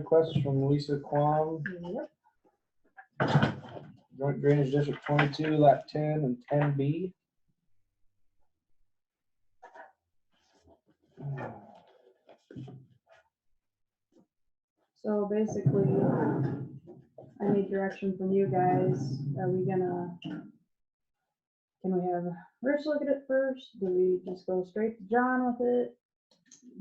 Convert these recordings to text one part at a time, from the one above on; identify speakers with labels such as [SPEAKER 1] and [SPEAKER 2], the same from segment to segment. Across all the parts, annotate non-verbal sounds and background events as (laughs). [SPEAKER 1] Request from Lisa Kwong,
[SPEAKER 2] Yep.
[SPEAKER 1] Joint Drainage District twenty-two, lot ten and ten B.
[SPEAKER 2] So basically, I need direction from you guys. Are we gonna? Can we have Rich look at it first? Do we just go straight to John with it?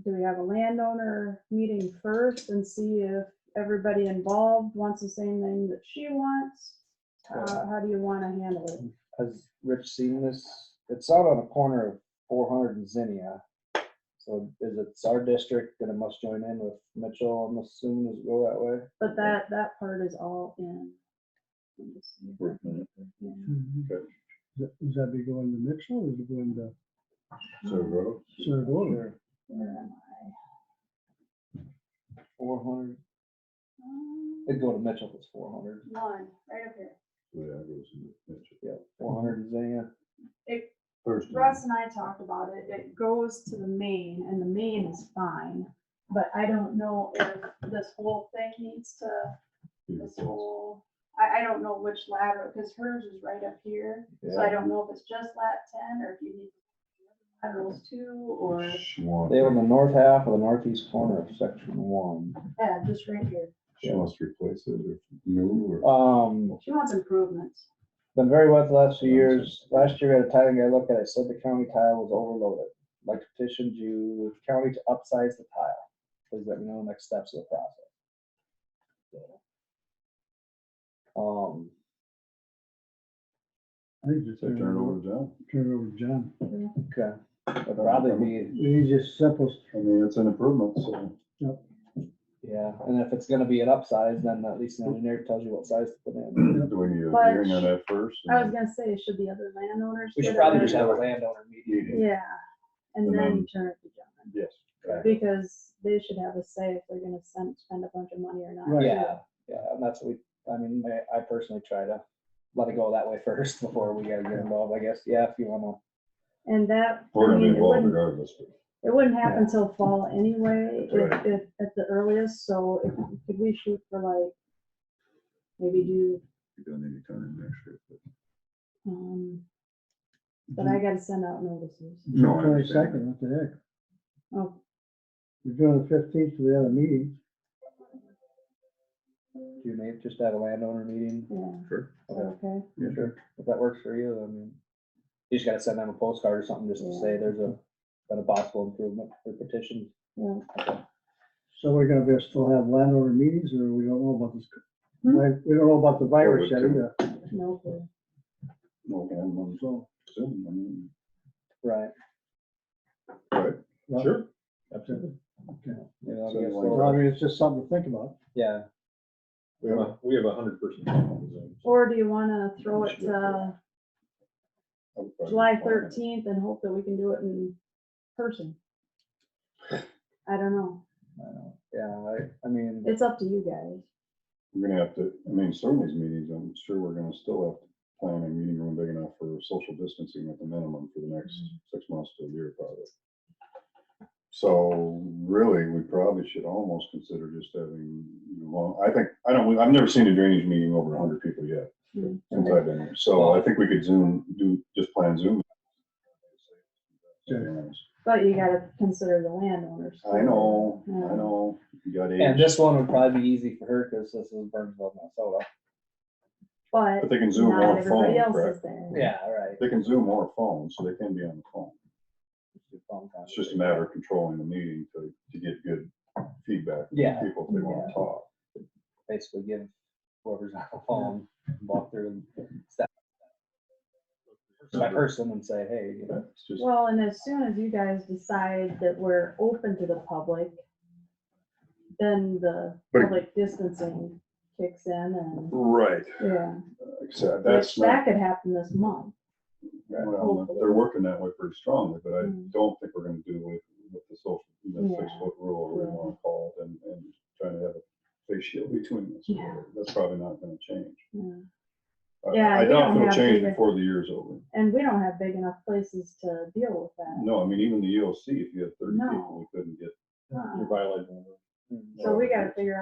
[SPEAKER 2] Do we have a landowner meeting first and see if everybody involved wants the same thing that she wants? How, how do you wanna handle it?
[SPEAKER 1] Has Rich seen this? It's out on the corner of four hundred and Zinnia. So is it it's our district that it must join in with Mitchell? I'm assuming does it go that way?
[SPEAKER 2] But that, that part is all in. Let me see. Yeah.
[SPEAKER 3] Okay.
[SPEAKER 4] Does does Mm-hmm. that be going to Mitchell or is it going to
[SPEAKER 3] So,
[SPEAKER 4] Saragona?
[SPEAKER 2] Where am I?
[SPEAKER 1] Four hundred,
[SPEAKER 2] Um,
[SPEAKER 1] it'd go to Mitchell if it's four hundred.
[SPEAKER 2] One, right up here.
[SPEAKER 3] yeah, it goes in the picture.
[SPEAKER 1] Yeah, four hundred and Zinnia.
[SPEAKER 2] It,
[SPEAKER 3] First.
[SPEAKER 2] Russ and I talked about it, it goes to the main, and the main is fine, but I don't know if this whole thing needs to, this whole, I, I don't know which ladder, because hers is right up here, so I
[SPEAKER 1] Yeah,
[SPEAKER 2] don't know if it's just lat ten, or if you need laterals two, or,
[SPEAKER 3] She wants,
[SPEAKER 1] They were in the north half of the northeast corner of section one.
[SPEAKER 2] yeah, just right here.
[SPEAKER 3] she wants to replace it or new or.
[SPEAKER 1] Um,
[SPEAKER 2] She wants improvements.
[SPEAKER 1] Been very wet the last few years. Last year, at a time, I looked at it, said the county tile was overloaded. Like petitioned you, county to upsize the tile. Please let me know next steps of the process. Um,
[SPEAKER 4] I think just
[SPEAKER 3] So turn it over to John.
[SPEAKER 4] Turn it over to John.
[SPEAKER 1] okay, that'd probably be,
[SPEAKER 4] The easiest, simplest,
[SPEAKER 3] I mean, it's an improvement, so.
[SPEAKER 1] yeah, and if it's gonna be an upsize, then at least the engineer tells you what size to put in.
[SPEAKER 3] Do we need a
[SPEAKER 2] But-
[SPEAKER 3] hearing on that first?
[SPEAKER 2] I was gonna say, should the other landowners?
[SPEAKER 1] We
[SPEAKER 2] get
[SPEAKER 1] should
[SPEAKER 2] it
[SPEAKER 1] probably
[SPEAKER 2] or-
[SPEAKER 1] just have a landowner meeting.
[SPEAKER 3] Meeting.
[SPEAKER 2] Yeah, and
[SPEAKER 3] And
[SPEAKER 2] then
[SPEAKER 3] then-
[SPEAKER 2] turn it to John,
[SPEAKER 3] Yes.
[SPEAKER 2] because they should have a say if they're gonna send, spend a bunch of money or not.
[SPEAKER 4] Right.
[SPEAKER 1] Yeah, yeah, and that's what we, I mean, I- I personally try to let it go that way (laughs) first before we gotta get involved, I guess. Yeah, if you wanna
[SPEAKER 2] And that,
[SPEAKER 3] We're
[SPEAKER 2] I
[SPEAKER 3] gonna be
[SPEAKER 2] mean, it
[SPEAKER 3] involved
[SPEAKER 2] wouldn't,
[SPEAKER 3] regardless. but-
[SPEAKER 2] it wouldn't happen till fall anyway,
[SPEAKER 3] That's
[SPEAKER 2] if,
[SPEAKER 3] right.
[SPEAKER 2] if, at the earliest, so if, could we shoot for like, maybe do,
[SPEAKER 3] You're gonna need to come in next year. but-
[SPEAKER 2] um, but I gotta send out notices.
[SPEAKER 3] No, I understand.
[SPEAKER 4] twenty-second, what the heck?
[SPEAKER 2] Oh,
[SPEAKER 4] We're doing the fifteenth to the other meeting.
[SPEAKER 1] You may just have a landowner meeting,
[SPEAKER 2] yeah,
[SPEAKER 3] Sure.
[SPEAKER 1] Okay.
[SPEAKER 2] okay,
[SPEAKER 3] Yeah, sure.
[SPEAKER 1] if that works for you, I mean. You just gotta send them a postcard or something, just to say there's a, been a possible improvement for petition.
[SPEAKER 2] yeah,
[SPEAKER 4] So we're gonna be, still have landowner meetings or we don't know about this?
[SPEAKER 2] Hmm?
[SPEAKER 4] like, We don't know about the virus yet
[SPEAKER 3] Or we
[SPEAKER 4] either.
[SPEAKER 2] no clue.
[SPEAKER 3] No, I'm on
[SPEAKER 4] So,
[SPEAKER 3] Zoom, I mean,
[SPEAKER 1] Right.
[SPEAKER 3] Right,
[SPEAKER 4] Well,
[SPEAKER 3] sure.
[SPEAKER 4] absolutely.
[SPEAKER 1] You know,
[SPEAKER 3] So
[SPEAKER 1] I guess
[SPEAKER 3] like-
[SPEAKER 4] Well, I
[SPEAKER 1] we'll-
[SPEAKER 4] mean, it's just something to think about.
[SPEAKER 1] Yeah,
[SPEAKER 3] We have a, we have a hundred percent.
[SPEAKER 2] Or do you wanna throw it to July thirteenth and hope that we can do it in person? I don't know,
[SPEAKER 1] I know. yeah, I, I mean,
[SPEAKER 2] it's up to you guys.
[SPEAKER 3] We're gonna have to, I mean, some of these meetings, I'm sure we're gonna still have to plan a meeting room big enough for social distancing at the minimum for the next
[SPEAKER 2] Mm-hmm.
[SPEAKER 3] six months to a year probably. So really, we probably should almost consider just having, long. I think, I don't, I've never seen a drainage meeting over a hundred people yet.
[SPEAKER 2] Hmm.
[SPEAKER 3] Since I've been here, so I think we could Zoom, do, just plan Zoom.
[SPEAKER 4] Sure.
[SPEAKER 2] But you gotta consider the landowners.
[SPEAKER 3] I know, I
[SPEAKER 2] Yeah.
[SPEAKER 3] know, you got
[SPEAKER 1] and
[SPEAKER 3] age,
[SPEAKER 1] this one would probably be easy for her, cause this is Burnsville, Minnesota.
[SPEAKER 2] But
[SPEAKER 3] but they can Zoom
[SPEAKER 2] not
[SPEAKER 3] on a phone,
[SPEAKER 2] everybody else
[SPEAKER 3] correct?
[SPEAKER 2] is there.
[SPEAKER 1] Yeah, right.
[SPEAKER 3] They can Zoom or phone, so they can be on the phone. It's just a matter of controlling the meeting to, to get good feedback. from
[SPEAKER 1] Yeah.
[SPEAKER 3] People if they want to talk.
[SPEAKER 1] Basically give whoever's on the phone, walk through and step. By person and say, hey, you know,
[SPEAKER 3] It's just,
[SPEAKER 2] Well, and as soon as you guys decide that we're open to the public, then the
[SPEAKER 3] But-
[SPEAKER 2] public distancing kicks in
[SPEAKER 3] right,
[SPEAKER 2] and, yeah.
[SPEAKER 3] except
[SPEAKER 2] Which
[SPEAKER 3] that's
[SPEAKER 2] that
[SPEAKER 3] not,
[SPEAKER 2] could happen this month.
[SPEAKER 3] well, they're working that way pretty strongly, but I
[SPEAKER 2] Mm.
[SPEAKER 3] don't think we're gonna do with, with the social, the
[SPEAKER 2] Yeah.
[SPEAKER 3] six foot rule, or whatever you
[SPEAKER 2] Yeah.
[SPEAKER 3] wanna call it, and, and trying to have a face shield between us.
[SPEAKER 2] Yeah.
[SPEAKER 3] That's probably not gonna change.
[SPEAKER 2] yeah.
[SPEAKER 3] I-
[SPEAKER 2] Yeah,
[SPEAKER 3] I
[SPEAKER 2] you don't
[SPEAKER 3] doubt
[SPEAKER 2] have
[SPEAKER 3] it'll change
[SPEAKER 2] to-
[SPEAKER 3] before the year's over.
[SPEAKER 2] And we don't have big enough places to deal with that.
[SPEAKER 3] No, I mean, even the EOC, if you had thirty
[SPEAKER 2] No.
[SPEAKER 3] people, we couldn't get
[SPEAKER 2] Huh.
[SPEAKER 3] violating.
[SPEAKER 1] mm.
[SPEAKER 2] So we gotta figure out.